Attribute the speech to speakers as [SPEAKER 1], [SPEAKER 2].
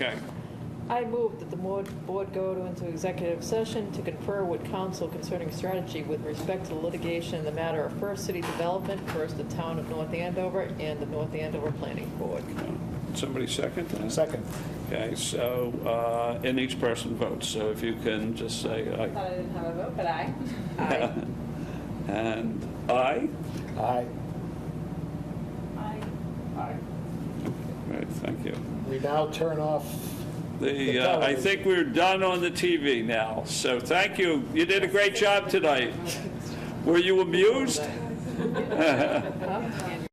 [SPEAKER 1] Okay,
[SPEAKER 2] I move that the mo- board go to- into executive session to confer with counsel concerning strategy with respect to litigation in the matter of First City Development, First the Town of North Andover, and the North Andover Planning Board.
[SPEAKER 1] somebody second that?
[SPEAKER 3] Second.
[SPEAKER 1] Okay, so, uh, and each person votes, so if you can just say aye.
[SPEAKER 4] Thought I didn't have a vote, but I. Aye.
[SPEAKER 1] And aye?
[SPEAKER 3] Aye.
[SPEAKER 4] Aye.
[SPEAKER 3] Aye.
[SPEAKER 1] Right, thank you.
[SPEAKER 3] We now turn off,
[SPEAKER 1] The, uh, I think we're done on the TV now, so thank you. You did a great job tonight. Were you amused?